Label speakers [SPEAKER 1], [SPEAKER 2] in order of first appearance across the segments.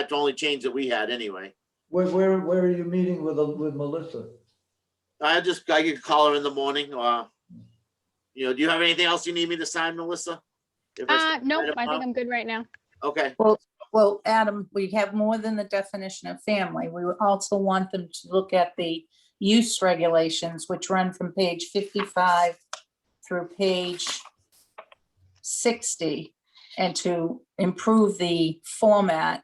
[SPEAKER 1] That's the only change that we had anyway.
[SPEAKER 2] Where, where, where are you meeting with, with Melissa?
[SPEAKER 1] I just, I could call her in the morning or, you know, do you have anything else you need me to sign, Melissa? If I
[SPEAKER 3] Uh,
[SPEAKER 1] start
[SPEAKER 3] nope,
[SPEAKER 1] right
[SPEAKER 3] I think
[SPEAKER 1] about-
[SPEAKER 3] I'm good right now.
[SPEAKER 4] Uh,
[SPEAKER 1] Okay,
[SPEAKER 4] Well, Adam, we have more than the definition of family. We would also want them to look at the use regulations, which run from page fifty-five through page sixty, and to improve the format.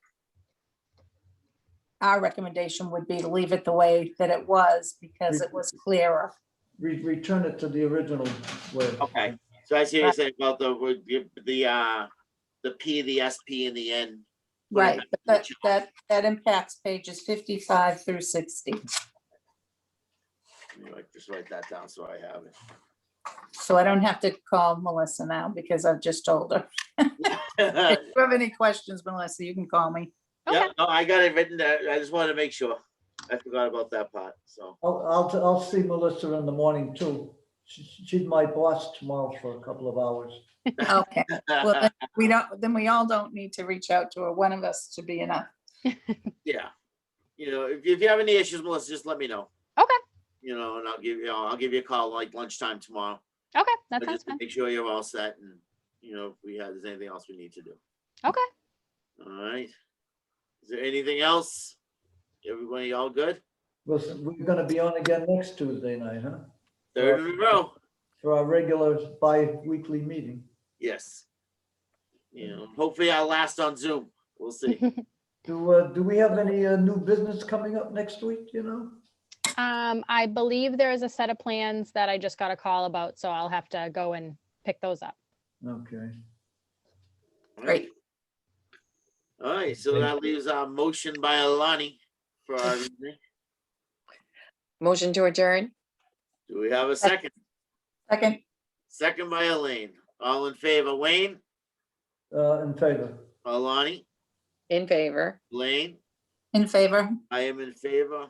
[SPEAKER 4] Our recommendation would be to leave it the way that it was because it was clearer.
[SPEAKER 2] Re- Return it to the original way.
[SPEAKER 1] okay. So I see what you're saying about the, would give the, uh, the P, the SP and the N.
[SPEAKER 4] Right, but that,
[SPEAKER 1] Which-
[SPEAKER 4] that, that impacts pages fifty-five through sixty.
[SPEAKER 1] Let me write- Just write that down so I have it.
[SPEAKER 4] So I don't have to call Melissa now because I've just told her. If you have any questions, Melissa, you can call me.
[SPEAKER 1] Yeah, no, I got it written there. I just wanted to make sure. I forgot about that part, so.
[SPEAKER 2] I'll, I'll, I'll see Melissa in the morning too. She- She's my boss tomorrow for a couple of hours.
[SPEAKER 4] Okay, well, then we don't, then we all don't need to reach out to her. One of us to be enough.
[SPEAKER 1] Yeah. You know, if, if you have any issues, Melissa, just let me know.
[SPEAKER 3] Okay.
[SPEAKER 1] You know, and I'll give you, I'll give you a call like lunchtime tomorrow.
[SPEAKER 3] Okay, that
[SPEAKER 1] But
[SPEAKER 3] sounds
[SPEAKER 1] just to
[SPEAKER 3] fine.
[SPEAKER 1] Make sure you're all set and, you know, if we have, there's anything else we need to do.
[SPEAKER 3] Okay.
[SPEAKER 1] All right. Is there anything else? Everybody all good?
[SPEAKER 2] We'll s- We're gonna be on again next Tuesday night, huh?
[SPEAKER 1] Third in a row?
[SPEAKER 2] For our regular bi-weekly meeting.
[SPEAKER 1] Yes. You know, hopefully I'll last on Zoom. We'll see.
[SPEAKER 2] Do, uh, do we have any uh, new business coming up next week, you know?
[SPEAKER 3] Um, I believe there is a set of plans that I just got a call about, so I'll have to go and pick those up.
[SPEAKER 2] Okay.
[SPEAKER 4] Great.
[SPEAKER 1] All right, so that leaves our motion by Alani for our, evening.
[SPEAKER 5] Motion to adjourn?
[SPEAKER 1] do we have a second?
[SPEAKER 4] Second,
[SPEAKER 1] Second by Elaine. All in favor, Wayne,
[SPEAKER 2] Uh, in favor.
[SPEAKER 1] Alani,
[SPEAKER 5] In favor?
[SPEAKER 1] Blaine,
[SPEAKER 4] in favor.
[SPEAKER 1] I am in favor.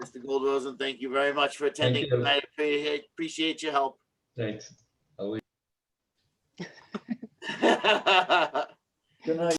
[SPEAKER 1] Mr. Goldrosen, thank you very much for attending.
[SPEAKER 6] you.
[SPEAKER 1] tonight. I appreciate, appreciate your help.
[SPEAKER 6] Thanks.
[SPEAKER 1] All
[SPEAKER 2] Good night.